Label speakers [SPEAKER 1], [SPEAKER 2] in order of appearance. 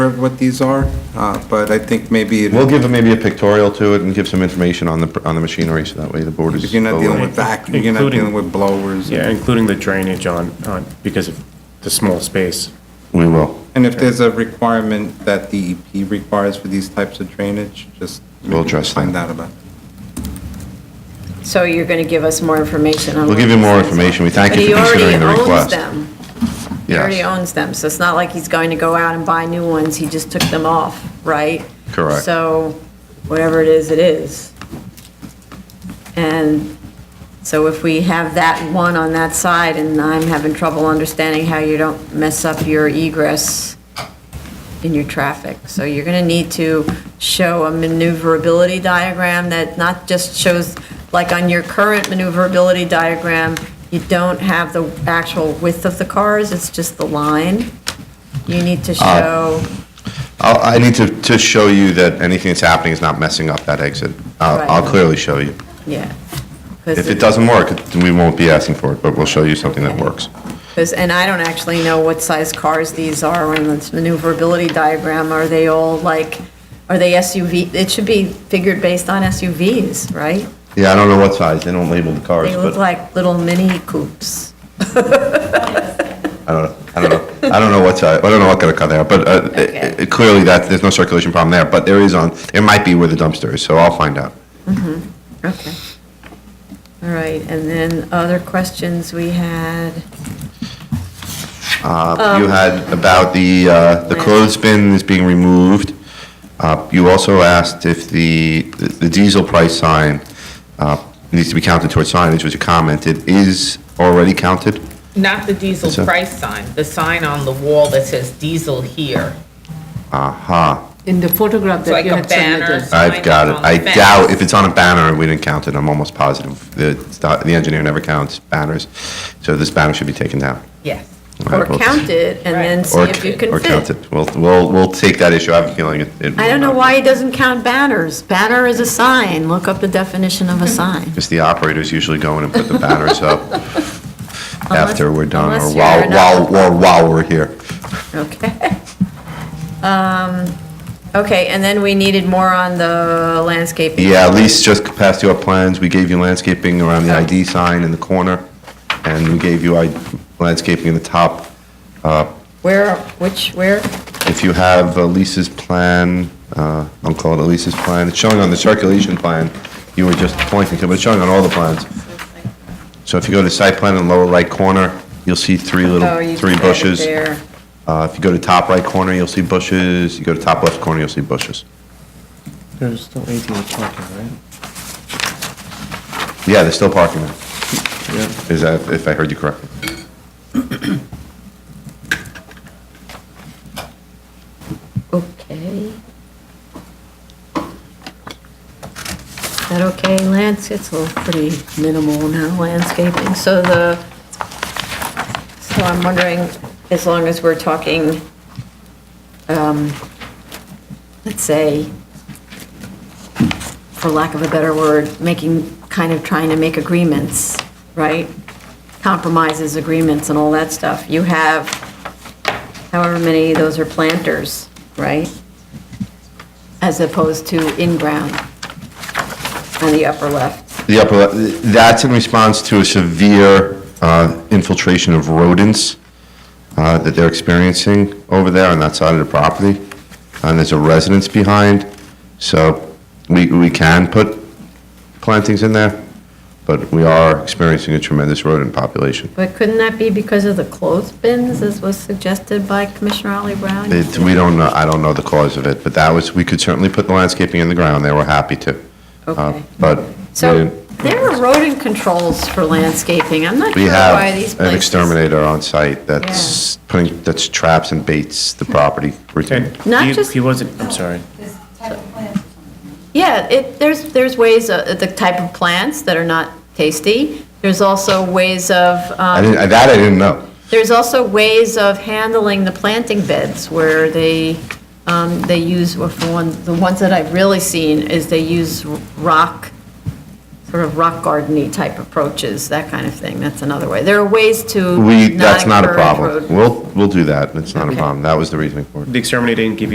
[SPEAKER 1] of what these are, uh, but I think maybe
[SPEAKER 2] We'll give them maybe a pictorial to it and give some information on the, on the machinery, so that way the board is.
[SPEAKER 1] you're not dealing with
[SPEAKER 2] aware.
[SPEAKER 1] vacuum, you're not
[SPEAKER 3] Including-
[SPEAKER 1] dealing with blowers.
[SPEAKER 3] Yeah, including the drainage on, on, because of the small space.
[SPEAKER 2] We will.
[SPEAKER 1] And if there's a requirement that DEP requires for these types of drainage, just.
[SPEAKER 2] We'll address
[SPEAKER 1] Find
[SPEAKER 2] that.
[SPEAKER 1] out about. it.
[SPEAKER 4] So you're going to give us more information on.
[SPEAKER 2] We'll give you more information. We thank you for considering the request.
[SPEAKER 4] But he already owns them. He already
[SPEAKER 2] Yes.
[SPEAKER 4] owns them, so it's not like he's going to go out and buy new ones, he just took them off, right?
[SPEAKER 2] Correct.
[SPEAKER 4] So whatever it is, it is. And so if we have that one on that side, and I'm having trouble understanding how you don't mess up your egress in your traffic. So you're going to need to show a maneuverability diagram that not just shows, like on your current maneuverability diagram, you don't have the actual width of the cars, it's just the line. You need
[SPEAKER 2] Uh,
[SPEAKER 4] to show,
[SPEAKER 2] I'll, I need to, to show you that anything that's happening is not messing up that exit. I'll, I'll
[SPEAKER 4] Right.
[SPEAKER 2] clearly show you.
[SPEAKER 4] yeah.
[SPEAKER 2] If it doesn't work, then we won't be asking for it, but we'll show you something that works.
[SPEAKER 4] Because, and I don't actually know what size cars these are on this maneuverability diagram. Are they all like, are they SUV? It should be figured based on SUVs, right?
[SPEAKER 2] Yeah, I don't know what size. They don't label the cars,
[SPEAKER 4] They look
[SPEAKER 2] but
[SPEAKER 4] like little mini coupes.
[SPEAKER 2] I don't, know. I don't know. I don't know what size, I don't know what kind of car they are, but uh, it- it- clearly that, there's no circulation problem there, but there is on, there might be where the dumpster is, so I'll find out.
[SPEAKER 4] Okay. All right, and then other questions we had?
[SPEAKER 2] Uh, You had about the, uh, the
[SPEAKER 4] Um, Right.
[SPEAKER 2] clothespin is being removed. Uh, You also asked if the, the diesel price sign uh, needs to be counted towards signage, which you commented, is already counted?
[SPEAKER 5] Not the diesel
[SPEAKER 2] So-
[SPEAKER 5] price sign, the sign on the wall that says diesel here.
[SPEAKER 2] Aha,
[SPEAKER 6] In the photograph
[SPEAKER 5] It's like
[SPEAKER 6] that you
[SPEAKER 5] a
[SPEAKER 6] had
[SPEAKER 5] banner.
[SPEAKER 6] submitted.
[SPEAKER 2] I've got it.
[SPEAKER 5] Sign
[SPEAKER 2] I
[SPEAKER 5] on the
[SPEAKER 2] doubt,
[SPEAKER 5] fence.
[SPEAKER 2] if it's on a banner, we didn't count it, I'm almost positive. The, the engineer never counts banners, so this banner should be taken down.
[SPEAKER 5] Yes.
[SPEAKER 2] All
[SPEAKER 4] Or
[SPEAKER 2] right, we'll-
[SPEAKER 4] count it and then
[SPEAKER 5] Right.
[SPEAKER 4] see
[SPEAKER 2] or-
[SPEAKER 4] if you
[SPEAKER 2] or
[SPEAKER 4] can
[SPEAKER 2] count
[SPEAKER 4] fit.
[SPEAKER 2] it. We'll, we'll, we'll take that issue, I have a feeling it. it
[SPEAKER 4] I don't know
[SPEAKER 2] will not.
[SPEAKER 4] why he doesn't count banners. Banner is a sign. Look up the definition of a sign.
[SPEAKER 2] Because the operators usually go in and put the banners up after we're done, or
[SPEAKER 4] unless
[SPEAKER 2] while,
[SPEAKER 4] you're
[SPEAKER 2] while,
[SPEAKER 4] not-
[SPEAKER 2] or while we're here.
[SPEAKER 4] Okay. Um, Okay, and then we needed more on the landscaping.
[SPEAKER 2] Yeah, at least just past your plans, we gave you landscaping around the ID sign in the corner, and we gave you I- landscaping in the top.
[SPEAKER 4] Where, which, where?
[SPEAKER 2] If you have uh, Lisa's plan, uh, I'll call it Lisa's plan, it's showing on the circulation plan, you were just pointing to, but it's showing on all the plans. So if you go to site plan in lower right corner, you'll see three
[SPEAKER 4] Oh,
[SPEAKER 2] little,
[SPEAKER 4] you
[SPEAKER 2] three
[SPEAKER 4] put it
[SPEAKER 2] bushes.
[SPEAKER 4] there.
[SPEAKER 2] Uh, If you go to top right corner, you'll see bushes. You go to top left corner, you'll see bushes.
[SPEAKER 3] There's still 18 parking, right?
[SPEAKER 2] Yeah, they're still parking there,
[SPEAKER 3] Yeah.
[SPEAKER 2] is that, if I heard you correctly.
[SPEAKER 4] Okay. Is that okay, Lance? It's a little pretty minimal now, landscaping. So the, so I'm wondering, as long as we're talking, um, let's say, for lack of a better word, making, kind of trying to make agreements, right? Compromises, agreements, and all that stuff. You have however many, those are planters, right? As opposed to in-ground on the upper left.
[SPEAKER 2] The upper, left- that's in response to a severe uh, infiltration of rodents uh, that they're experiencing over there on that side of the property. And there's a residence behind, so we, we can put plantings in there, but we are experiencing a tremendous rodent population.
[SPEAKER 4] But couldn't that be because of the clothespins, as was suggested by Commissioner Ollie Brown?
[SPEAKER 2] It, we don't know, I don't know the cause of it, but that was, we could certainly put the landscaping in the ground, they were happy to. Uh,
[SPEAKER 4] Okay.
[SPEAKER 2] But we
[SPEAKER 4] So
[SPEAKER 2] didn't-
[SPEAKER 4] there are rodent controls for landscaping. I'm not
[SPEAKER 2] we
[SPEAKER 4] sure
[SPEAKER 2] have
[SPEAKER 4] why these
[SPEAKER 2] an
[SPEAKER 4] places.
[SPEAKER 2] exterminator on site that's putting, that's traps and baits the property routine.
[SPEAKER 3] And
[SPEAKER 4] Not
[SPEAKER 3] he-
[SPEAKER 4] just-
[SPEAKER 3] He wasn't, I'm sorry.
[SPEAKER 7] this type of plant
[SPEAKER 4] Yeah, it, there's, there's ways, uh, the type of plants that are not tasty. There's also ways of.
[SPEAKER 2] I didn't, that I didn't know.
[SPEAKER 4] There's also ways of handling the planting beds where they, um, they use, well, for one, the ones that I've really seen is they use rock, sort of rock garden-y type approaches, that kind of thing. That's another way. There are ways to
[SPEAKER 2] We, that's not a
[SPEAKER 4] encourage
[SPEAKER 2] problem.
[SPEAKER 4] rodent-
[SPEAKER 2] We'll, we'll do that, it's not a
[SPEAKER 4] Okay.
[SPEAKER 2] problem, that was the reasoning for it.
[SPEAKER 3] The exterminator didn't give you